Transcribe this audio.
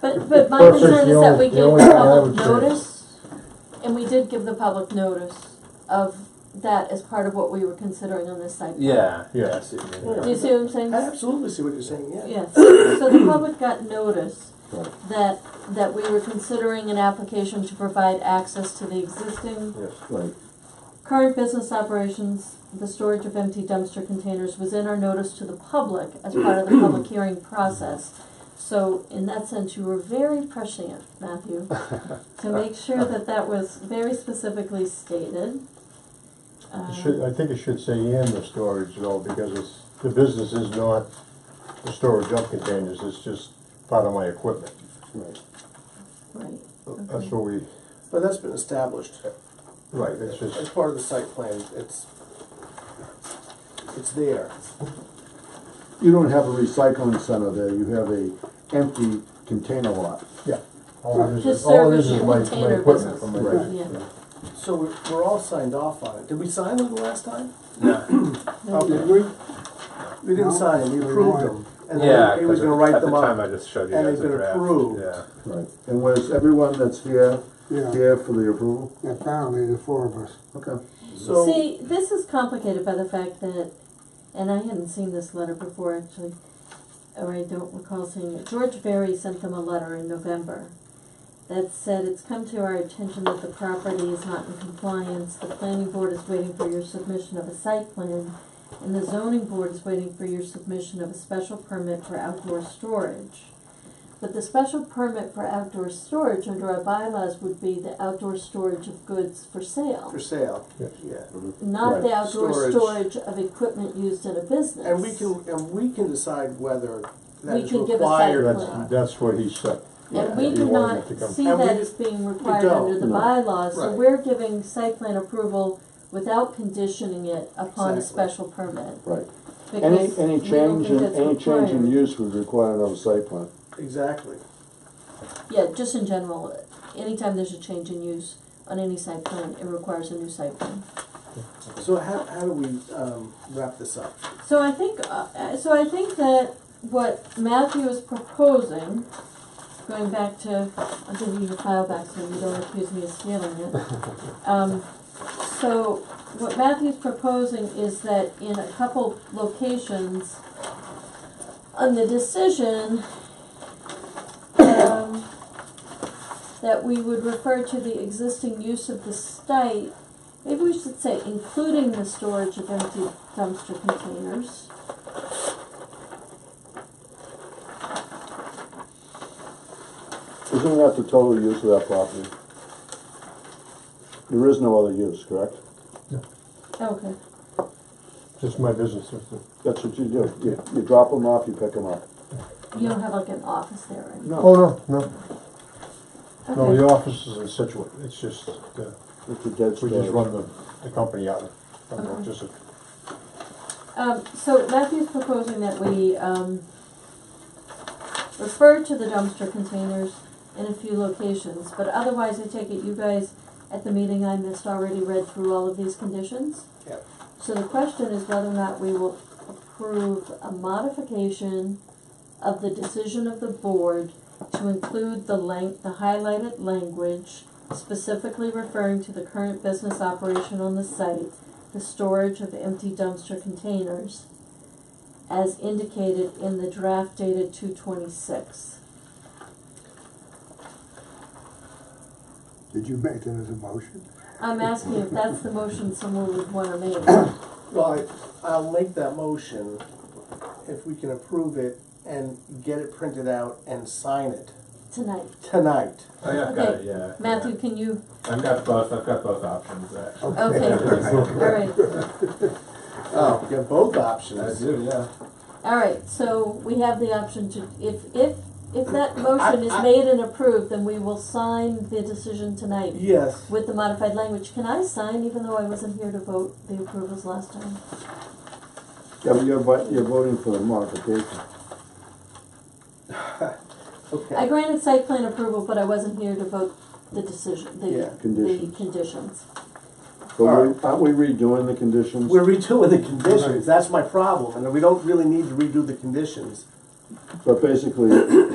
But, but my Plus, there's concern the is that only- we the gave only the public thing I would say- notice, and we did give the public notice of that as part of what we were considering on this site. plan. Yeah, Yeah. yeah, I see what you mean. Do you see what I'm saying? I absolutely see what you're saying, yeah. Yes, so the public got notice Right. that, that we were considering an application to provide access to the existing Yes, right. current business operations, the storage of empty dumpster containers was in our notice to the public as part of the public hearing process. So in that sense, you were very prescient, Matthew, to make sure that that was very specifically stated. Um, Uh, It should, I think it should say and the storage though, because it's, the business is not the storage of containers, it's just part of my equipment. Um, Right, That's what we, But that's been established. right, it's It's just, part of the site plan, it's, it's there. You don't have a recycling center there, you have a empty container lot. yeah. All it is, Just is- all it is service is my, and container my equipment business. from my. Right. yeah. So we're, we're all signed off on it. Did we sign them the last time? No. Okay. We didn't sign them, we approved them. And Yeah, then he was 'cause gonna at- write them At the time, I up. just showed you and guys they've a been draft. approved. Yeah. Right. And was everyone that's here, Yeah, here for the approval? apparently the four of us. Okay. So, See, this is complicated by the fact that, and I hadn't seen this letter before actually, or I don't recall seeing it. George Berry sent them a letter in November that said, it's come to our attention that the property is not in compliance. The planning board is waiting for your submission of a site plan, and the zoning board is waiting for your submission of a special permit for outdoor storage. But the special permit for outdoor storage under our bylaws would be the outdoor storage of goods for sale for sale, Yes. yeah. not the outdoor Storage. storage of equipment used in a business. And we can, and we can decide whether that We is can give a required or site not. That's, that's what he said. And we He do wanted not it to come- see And that we- as being required don't, under the no. bylaws, so Right. we're giving site plan approval without conditioning it upon a Exactly. special permit. Right. Any, because any we don't change think in, that's any change in required. use would require another site plan. Exactly. Yeah, just in general, anytime there's a change in use on any site plan, it requires a new site plan. So how, how do we, um, wrap this up? So I think, uh, uh, so I think that what Matthew is proposing, going back to, I'll give you your file back so you don't accuse me of stealing it. Um, so what Matthew's proposing is that in a couple locations, on the decision, um, that we would refer to the existing use of the site Maybe we should say including the storage of empty dumpster containers. Isn't that the total use of that property? There is no other use, correct? Okay, Just my business, that's it. That's what you do. You, you drop them off, you pick them up. you don't have like an office there, right? No, Oh, no, no, no, the Okay, office is in Situate, it's just, uh, it's a dead we just storage. run the, the company out of, I don't know, just a um, so Matthew's proposing that we, um, refer to the dumpster containers in a few locations, but otherwise I take it you guys at the meeting I missed already read through all of these conditions? Yep. So the question is whether or not we will approve a modification of the decision of the board to include the lang- the highlighted language specifically referring to the current business operation on the site, the storage of empty dumpster containers, as indicated in the draft dated two twenty-six. Did you make that as a motion? I'm asking if that's the motion someone would wanna make. Well, I, I'll make that motion if we can approve it and get it printed out and sign it tonight. tonight. Oh, yeah, I've got Okay. it, yeah. Matthew, can you, yeah. I've got both, I've got both options, actually. okay, all right. Oh, you have both I options. do, yeah. All right, so we have the option to, if, if, if that motion is I- I- made and approved, then we will sign the decision tonight Yes, with the modified language. Can I sign even though I wasn't here to vote the approvals last time? Yeah, but you're, vi- you're voting for the modification. I okay. granted site plan approval, but I wasn't here to vote the decision, the, Yeah, the conditions. conditions. But we- aren't we redoing the conditions? We're redoing the conditions, that's my problem, and we don't really need to redo the conditions. But basically,